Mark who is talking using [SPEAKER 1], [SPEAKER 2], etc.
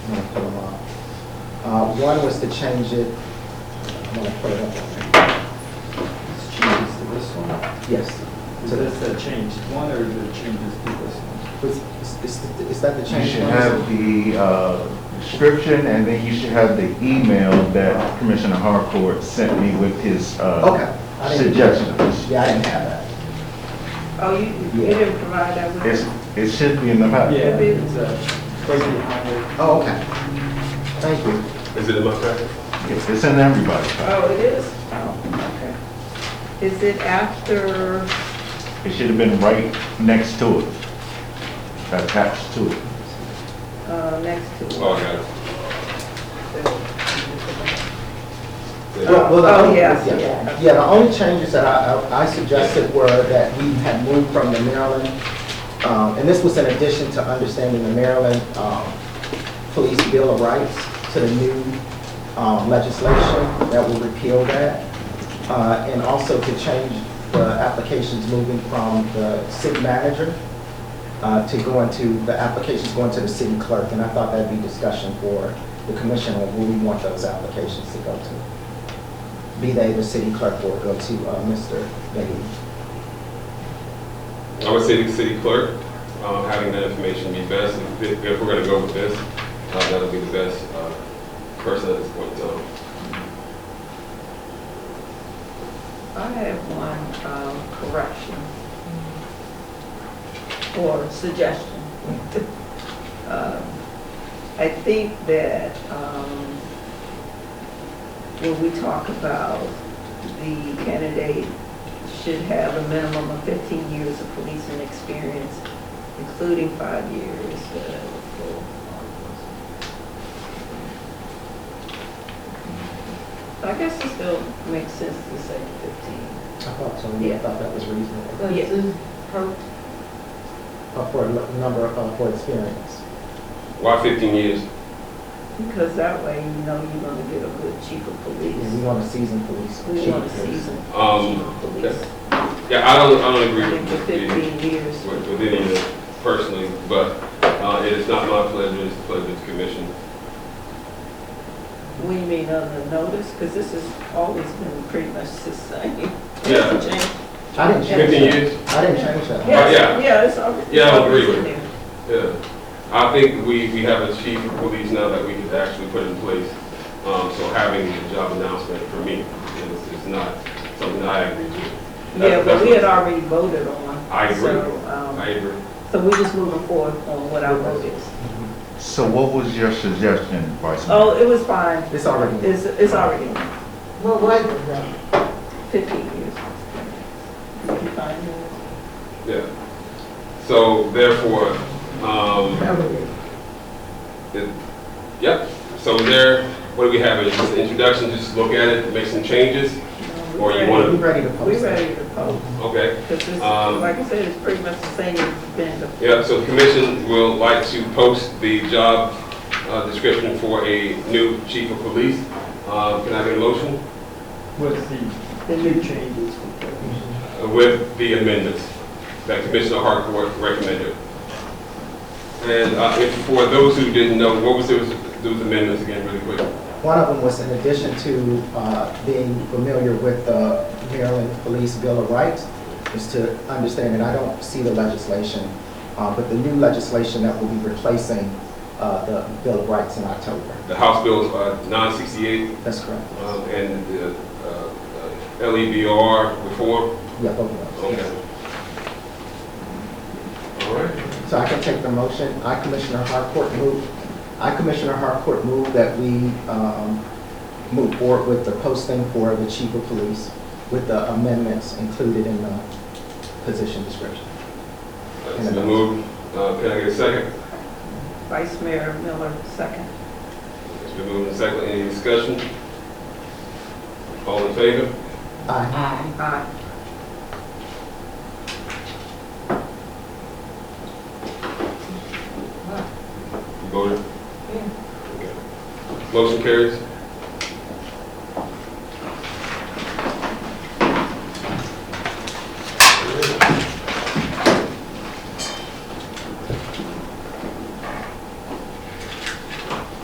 [SPEAKER 1] I'm gonna pull them up. Uh, one was to change it, I'm gonna pull it up.
[SPEAKER 2] It's changes to this one.
[SPEAKER 1] Yes.
[SPEAKER 2] Is
[SPEAKER 1] So
[SPEAKER 2] this
[SPEAKER 1] this,
[SPEAKER 2] the changed one or the changes to this one?
[SPEAKER 1] is, is, is that the
[SPEAKER 3] You
[SPEAKER 1] change?
[SPEAKER 3] should
[SPEAKER 1] one?
[SPEAKER 3] have the uh, description, and then you should have the email that Commissioner Harcourt sent me with his
[SPEAKER 1] Okay.
[SPEAKER 3] uh,
[SPEAKER 1] I didn't-
[SPEAKER 3] suggestions.
[SPEAKER 1] Yeah, I didn't have that.
[SPEAKER 4] Oh, you, you
[SPEAKER 1] Yeah.
[SPEAKER 4] didn't provide that with
[SPEAKER 3] It's, it should be in the packet.
[SPEAKER 2] Yeah, it's uh, right behind it.
[SPEAKER 1] Oh, okay. Thank you.
[SPEAKER 5] Is it in my packet?
[SPEAKER 3] It's it's in everybody's packet.
[SPEAKER 4] Oh, it is?
[SPEAKER 1] Oh,
[SPEAKER 4] Is it after,
[SPEAKER 3] It should have been right next to it, attached to it.
[SPEAKER 4] uh, next to?
[SPEAKER 5] Oh, I got it. Yeah.
[SPEAKER 1] Well, well, the
[SPEAKER 4] Oh,
[SPEAKER 1] only-
[SPEAKER 4] yes, yeah.
[SPEAKER 1] Yeah, the only changes that I, I I suggested were that we had moved from the Maryland, um, and this was in addition to understanding the Maryland, um, Police Bill of Rights to the new, um, legislation that will repeal that. Uh, and also to change the applications moving from the city manager, uh, to go into, the applications going to the city clerk. And I thought that'd be discussion for the commission on where we want those applications to go to be they the city clerk or go to uh, Mr. Bailey.
[SPEAKER 5] I would say the city clerk, um, having that information be best, if, if we're gonna go with this, uh, that'll be the best, uh, person at this point in time.
[SPEAKER 4] I have one, um, correction or suggestion. Um, I think that, um, when we talk about the candidate should have a minimum of fifteen years of policing experience, including five years. uh, for- I guess it still makes sense to say fifteen.
[SPEAKER 1] I thought so, I
[SPEAKER 4] Yeah.
[SPEAKER 1] thought that was reasonable,
[SPEAKER 4] Oh, Yeah.
[SPEAKER 1] Uh, for a lo- number, uh, for experience.
[SPEAKER 5] Why fifteen years?
[SPEAKER 4] Because that way you know you're gonna get a good chief of
[SPEAKER 1] Yeah, We
[SPEAKER 4] police.
[SPEAKER 1] want a seasoned police.
[SPEAKER 4] We
[SPEAKER 1] Mm-hmm. chief
[SPEAKER 4] want a
[SPEAKER 1] police.
[SPEAKER 4] seasoned chief
[SPEAKER 5] Um,
[SPEAKER 4] of police.
[SPEAKER 5] Yeah, I don't, I don't
[SPEAKER 4] I
[SPEAKER 5] agree
[SPEAKER 4] think the
[SPEAKER 5] with the-
[SPEAKER 4] fifteen years.
[SPEAKER 5] with, with any of it personally, but, uh, it is not my pleasure, it's the pleasure of the commission.
[SPEAKER 4] We mean on the notice, because this has always been pretty much the same.
[SPEAKER 5] Yeah.
[SPEAKER 1] I didn't change
[SPEAKER 5] Fifteen
[SPEAKER 1] that.
[SPEAKER 5] years?
[SPEAKER 1] I didn't change that.
[SPEAKER 5] yeah.
[SPEAKER 4] Yes, yeah, it's already.
[SPEAKER 5] Yeah, I agree
[SPEAKER 4] it's
[SPEAKER 5] with
[SPEAKER 4] in
[SPEAKER 5] you.
[SPEAKER 4] there.
[SPEAKER 5] Yeah, I think we, we have a chief of police now that we could actually put in place. Um, so having the job announcement for me is, is not something that I agree with. That's-
[SPEAKER 4] Yeah, but
[SPEAKER 5] that's
[SPEAKER 4] we
[SPEAKER 5] what-
[SPEAKER 4] had already voted on.
[SPEAKER 5] I agree.
[SPEAKER 4] So, um,
[SPEAKER 5] I agree.
[SPEAKER 4] so we're just moving forward on what our vote is.
[SPEAKER 3] So what was your suggestion, Vice Mayor?
[SPEAKER 4] Oh, it was fine.
[SPEAKER 1] It's already,
[SPEAKER 4] It's, it's already on.
[SPEAKER 6] What was it though?
[SPEAKER 4] fifteen years. Fifty-five years.
[SPEAKER 5] Yeah. So therefore, um, it, yep, so there, what do we have, is just an introduction, just look at it, make some changes?
[SPEAKER 4] No,
[SPEAKER 5] Or
[SPEAKER 4] we
[SPEAKER 5] you
[SPEAKER 4] ready.
[SPEAKER 5] wanna-
[SPEAKER 1] we ready to
[SPEAKER 4] We
[SPEAKER 1] post that.
[SPEAKER 4] ready to vote,
[SPEAKER 5] Okay,
[SPEAKER 4] because this,
[SPEAKER 5] Um,
[SPEAKER 4] like I said, it's pretty much the same as it's been. the-
[SPEAKER 5] yeah, so the commission will like to post the job uh, description for a new chief of police. Uh, Can I get a motion
[SPEAKER 2] What's the, the new changes?
[SPEAKER 5] with the amendments that Commissioner Harcourt recommended? And uh, if, for those who didn't know, what was those those amendments again, really quick?
[SPEAKER 1] One of them was in addition to, uh, being familiar with the Maryland Police Bill of Rights, is to understand, and I don't see the legislation, uh, but the new legislation that will be replacing, uh, the Bill of Rights in October.
[SPEAKER 5] The House Bill uh, 968
[SPEAKER 1] That's correct.
[SPEAKER 5] Um, and the uh, uh, LEBR before?
[SPEAKER 1] Yeah, both of them.
[SPEAKER 5] Okay. All right,
[SPEAKER 1] So I can take the motion. I, Commissioner Harcourt, move, I, Commissioner Harcourt, move that we um, move forward with the posting for the chief of police with the amendments included in the position description.
[SPEAKER 5] that's the move. Uh, Can I get a second?
[SPEAKER 4] Vice Mayor Miller, second.
[SPEAKER 5] It's been moved and seconded. Any discussion? All in favor?
[SPEAKER 1] Aye.
[SPEAKER 6] Aye.
[SPEAKER 4] Aye.
[SPEAKER 5] You voted? Okay. Motion carries.